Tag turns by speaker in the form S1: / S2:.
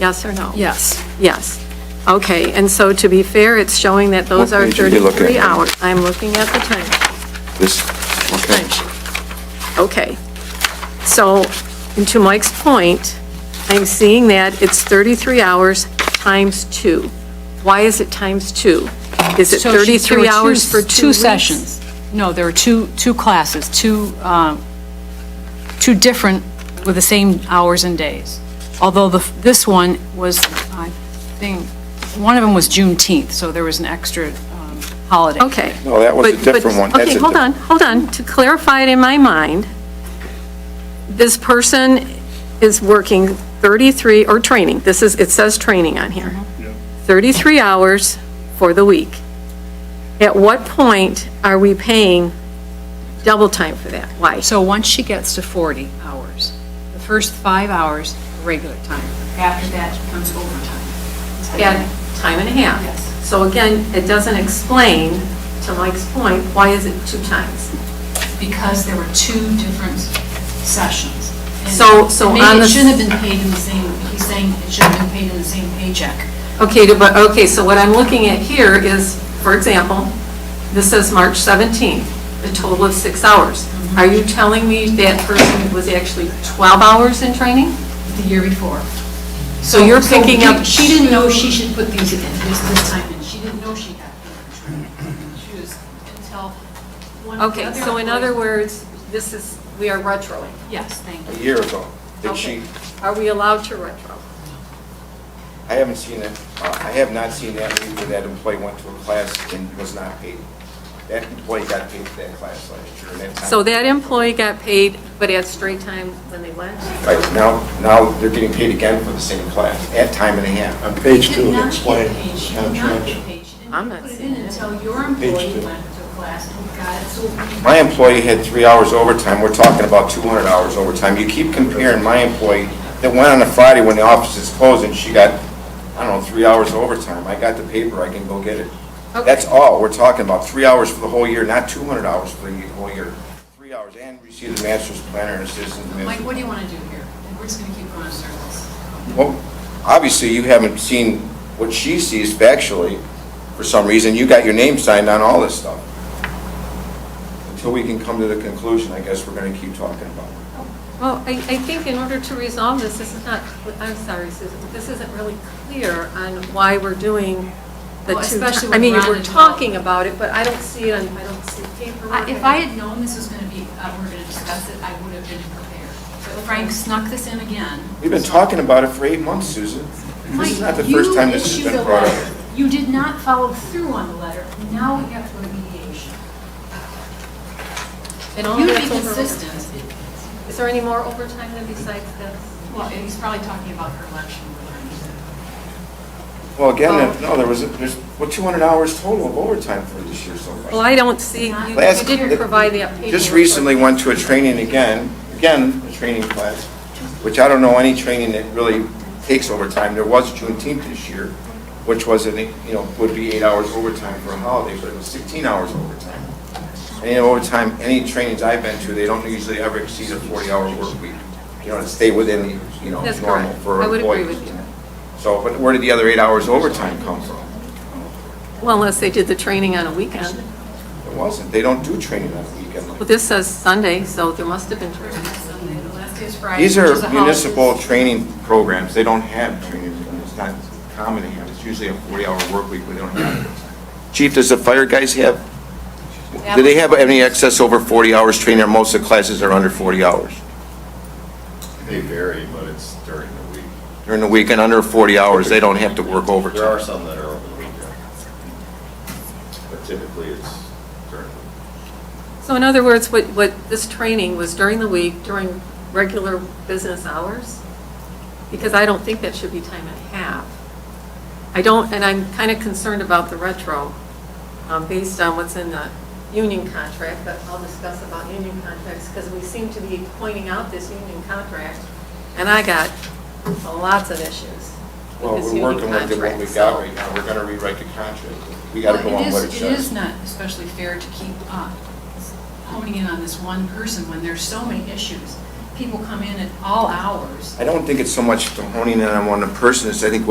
S1: Yes or no?
S2: Yes.
S1: Yes. Okay, and so to be fair, it's showing that those
S3: What
S1: are
S3: page are you looking at?
S1: 33 hours. I'm looking at the time,
S3: This, okay.
S1: timesheet. Okay. So, and to Mike's point, I'm seeing that it's 33 hours times two. Why is it times two? Is it
S2: So she- there
S1: 33
S2: were
S1: hours for two
S2: Two
S1: weeks?
S2: sessions. No, there were two, two classes, two, um, two different with the same hours and days. Although the, this one was, I think, one of them was Juneteenth, so there was an extra um, holiday.
S1: Okay.
S3: No, that was a
S1: But- but-
S3: different one. That's
S1: Okay,
S3: a
S1: hold on,
S3: different-
S1: hold on. To clarify it in my mind, this person is working 33, or training, this is, it says training on here, 33 hours for the week. At what point are we paying double time for that? Why?
S2: So once she gets to 40 hours, the first five hours, regular time. After that comes overtime.
S1: At time and a half.
S2: Yes.
S1: So again, it doesn't explain, to Mike's point, why is it two times?
S2: because there were two different sessions. And
S1: So- so
S2: maybe
S1: on the-
S2: It shouldn't have been paid in the same, he's saying it should have been paid in the same paycheck.
S1: Okay, to- but, okay, so what I'm looking at here is, for example, this says March 17th, a total of six hours.
S2: Mm-hmm.
S1: Are you telling me that person was actually 12 hours in training?
S2: the year before.
S1: So you're picking up-
S2: She didn't know she should put these in this, this time, and she didn't know she got them. She was, until one of the
S1: Okay,
S2: other
S1: so in other words,
S2: employees-
S1: this is, we are retro.
S2: Yes, thank
S3: A
S2: you.
S3: year ago. Did
S1: Okay.
S3: she,
S1: Are we allowed to retro?
S3: I haven't seen it, uh, I have not seen that week where that employee went to a class and was not paid. That employee got paid for that class last year. and that's not-
S1: So that employee got paid, but at straight time when they went?
S3: Right, now, now they're getting paid again for the same class, at time and a half.
S4: On page
S2: She
S4: two,
S2: did
S4: it
S2: not get
S4: explained
S2: paid, she did not
S4: contracts.
S2: get paid, she
S1: I'm
S2: didn't
S1: not
S2: put it
S1: seeing
S2: in until your
S4: Page
S2: employee
S4: two.
S2: went to a class and got it, so
S3: My employee had three hours overtime, we're talking about 200 hours overtime. You keep comparing my employee that went on a Friday when the office is closed and she got, I don't know, three hours overtime. I got the paper, I can go get it. That's
S1: Okay.
S3: all, we're talking about, three hours for the whole year, not 200 hours for the whole year. Three hours, and received a master's planner and assistant
S2: Mike,
S3: administrator.
S2: what do you want to do here? We're just going to keep going in circles.
S3: Well, obviously, you haven't seen what she sees factually, for some reason. You got your name signed on all this stuff. Until we can come to the conclusion, I guess we're gonna keep talking about it.
S1: Well, I, I think in order to resolve this, this is not, I'm sorry, Susan, but this isn't really clear on why we're doing the
S2: Well,
S1: two.
S2: especially
S1: ti-
S2: with
S1: I mean,
S2: Ron
S1: we're
S2: involved.
S1: talking about it, but I don't see it, on- I don't see paperwork.
S2: I- If I had known this was going to be, uh, we're going to discuss it, I would have been prepared. But Frank snuck this in again.
S3: We've been talking about it for eight months, Susan. This is not the
S2: Mike, you
S3: first time this has
S2: issued
S3: been
S2: a
S3: brought up.
S2: letter. You did not follow through on the letter. Now we have to go to mediation.
S1: And all
S2: You
S1: Oh, that's
S2: be
S1: over-
S2: consistent.
S1: Is there any more overtime than besides this?
S2: Well, and he's probably talking about her election.
S3: Well, again, no, there was, there's, well, 200 hours total of overtime for this year so far.
S1: Well, I don't see, you you
S3: Last-
S1: didn't provide that paperwork.
S3: Just recently went to a training again, again, a training class, which I don't know any training that really takes overtime. There was Juneteenth this year, which was, an eight- you know, would be eight hours overtime for a holiday, but it was 16 hours overtime. Any overtime, any trainings I've been to, they don't usually ever exceed a 40-hour work week, you know, to stay within, the you know,
S1: That's
S3: normal
S1: correct.
S3: for
S1: I would agree
S3: employees.
S1: with you.
S3: So, but where did the other eight hours overtime come from?
S1: Well, unless they did the training on a weekend.
S3: It wasn't. They don't do training on the weekend like
S1: Well, this says Sunday, so there must have been training.
S2: Sunday, the last day is Friday.
S3: These
S2: which is a
S3: are
S2: holiday.
S3: municipal training programs, they don't have training, it's not common to have, it's usually a 40-hour work week, but they don't have it. Chief, does the fire guys have, do they have any excess over 40 hours training, or most of the classes are under 40 hours?
S5: They vary, but it's during the week.
S3: During the weekend, under 40 hours, they don't have to work
S5: There are
S3: overtime.
S5: some that are over the weekend. But typically, it's during the week.
S1: So in other words, what, what this training was during the week, during regular business hours? Because I don't think that should be time and a half. I don't, and I'm kind of concerned about the retro, um, based on what's in the union contract, but I'll discuss about union contracts, because we seem to be pointing out this union contract, and I got lots of issues
S3: Well,
S1: with this
S3: we're
S1: union
S3: working
S1: contract.
S3: with what we
S1: so-
S3: got right now, we're gonna rewrite the contract, we gotta go
S2: Well, it
S3: on
S2: is,
S3: what it
S2: it is
S3: says.
S2: not especially fair to keep uh, honing in on this one person when there's so many issues.
S1: people come in at all hours.
S3: I don't think it's so much the honing in on one person, it's I think what